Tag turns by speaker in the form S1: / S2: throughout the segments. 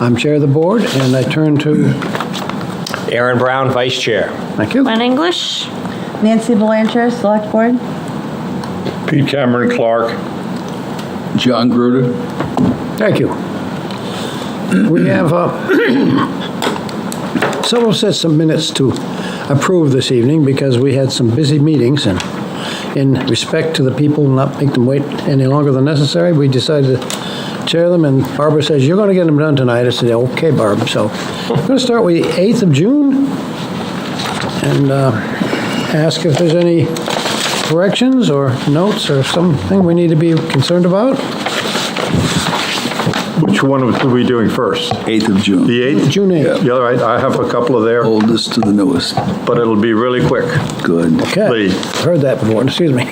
S1: I'm Chair of the Board, and I turn to,
S2: Aaron Brown, Vice Chair.
S1: thank you.
S3: Glenn English,
S4: Nancy Belanger, Select Board.
S5: Pete Cameron Clark.
S6: John Gruder.
S1: Thank you. We have uh, several sets of minutes to approve this evening because we had some busy meetings and in respect to the people, not make them wait any longer than necessary, we decided to chair them and Barbara says, you're going to get them done tonight. I said, okay, Barb. So I'm going to start with the 8th of June and uh, ask if there's any corrections or notes or something we need to be concerned about.
S5: Which one are we doing first?
S6: 8th of
S5: The
S6: June. Oh.
S5: 8th?
S1: June 8th.
S5: Yeah, all right, I have a couple of there,
S6: Oldest to the newest.
S5: but it'll be really quick.
S6: Good.
S1: Okay,
S5: Lee.
S1: heard that before, excuse me.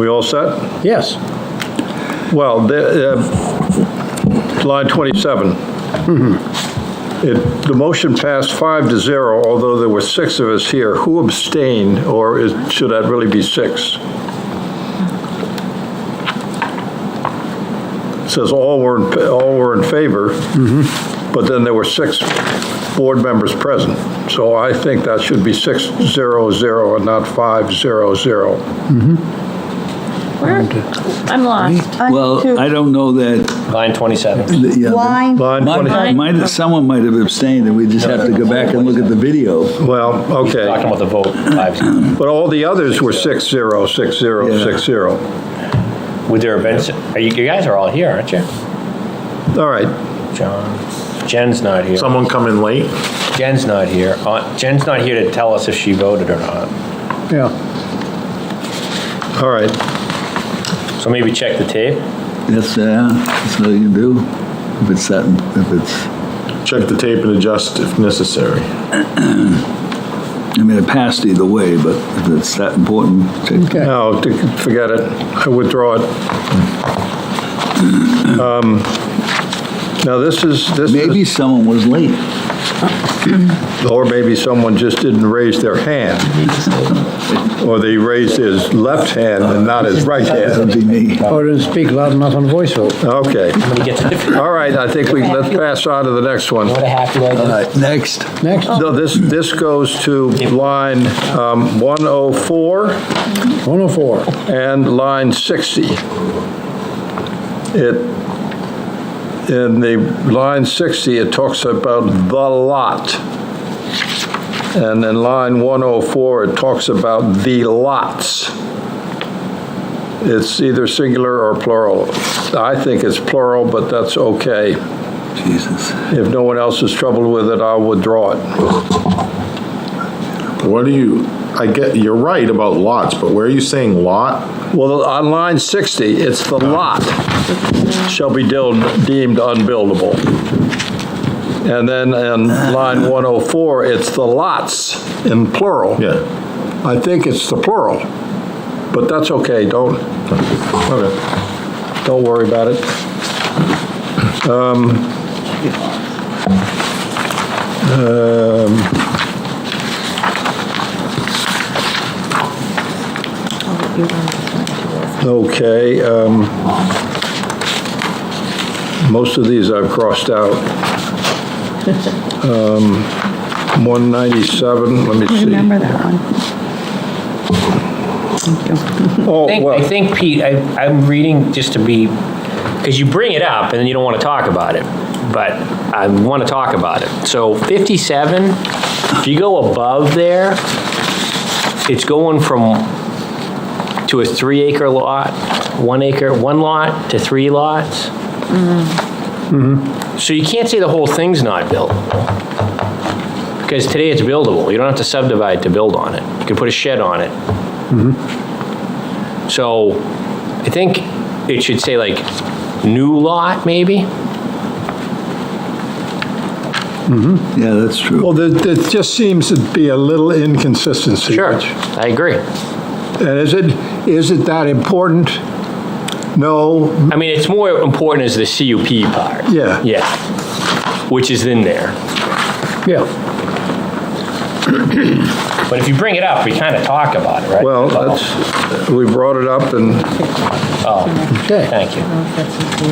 S5: We all set?
S1: Yes,
S5: Well, the, uh, line 27. It- The motion passed five to zero, although there were six of us here. Who abstained, or is- should that really be six? It Says all were, in- all were in favor, but then there were six board members present. So I think that should be six, zero, zero, and not five, zero, zero.
S3: where, I'm lost.
S4: On to
S6: Well, I don't know that,
S2: Line 27.
S6: that- yeah.
S4: Line,
S5: Line
S6: Might-
S5: 20
S6: might- someone might have abstained, and we just have to go back and look at the video.
S5: well, okay.
S2: Talking about the vote, five.
S5: But all the others were six zero, six zero,
S6: Yeah.
S5: six zero.
S2: Would there have been, s- are you, you guys are all here, aren't you?
S5: All right,
S2: John, Jen's not here.
S7: Someone come in late?
S2: Jen's not here. Uh, Jen's not here to tell us if she voted or not.
S1: yeah,
S5: all right.
S2: So maybe check the tape.
S6: That's, yeah, uh, that's what you can do, if it's that, if it's,
S7: Check the tape and adjust if necessary.
S6: I mean, it passed either way, but if it's that important, take
S1: okay.
S5: No, d- forget it. I withdraw it. Um, Now, this is, this
S6: Maybe
S5: is,
S6: someone was late.
S5: or maybe someone just didn't raise their hand, or they raised his left hand and not his right hand.
S6: That'd be me.
S1: Or didn't Oh, speak loud enough on voice vote.
S5: Okay,
S2: When you get to the,
S5: all right, I think we, let's pass on to the next one.
S2: what a happy day.
S6: All right, next.
S1: Next,
S5: No, this, this goes to line um, 104.
S1: 104.
S5: and line 60. It, in the line 60, it talks about the lot. And in line 104, it talks about the lots. It's either singular or plural. I think it's plural, but that's okay.
S6: Jesus.
S5: If no one else is troubled with it, I'll withdraw it.
S7: What do you, I get, you're right about lots, but where are you saying lot?
S5: Well, on line 60, it's the lot shall be deemed deemed unbuildable. And then in line 104, it's the lots in plural.
S7: Yeah.
S5: I think it's the plural, but that's okay, don't,
S7: Okay.
S5: don't worry about it. Um, um, Okay, um, most of these I've crossed out. Um, 197, let me see.
S4: remember that one. Thank you.
S5: Oh,
S2: think, I
S5: well,
S2: think, Pete, I, I'm reading just to be, because you bring it up and then you don't want to talk about it, but I want to talk about it. So 57, if you go above there, it's going from, to a three acre lot, one acre, one lot to three lots.
S5: Mm-hmm.
S2: So you can't say the whole thing's not built. Because today it's buildable. You don't have to subdivide to build on it. You can put a shed on it. So I think it should say like new lot, maybe?
S6: Yeah, that's true.
S5: well, there, there just seems to be a little inconsistency.
S2: Sure,
S5: which-
S2: I agree.
S5: And is it, is it that important? No,
S2: I mean, it's more important is the CUP part.
S5: Yeah.
S2: Yeah, which is in there.
S1: Yeah,
S2: But if you bring it up, we kind of talk about it, right?
S5: well, that's, we brought it up and
S2: Oh,
S1: okay.
S2: thank you.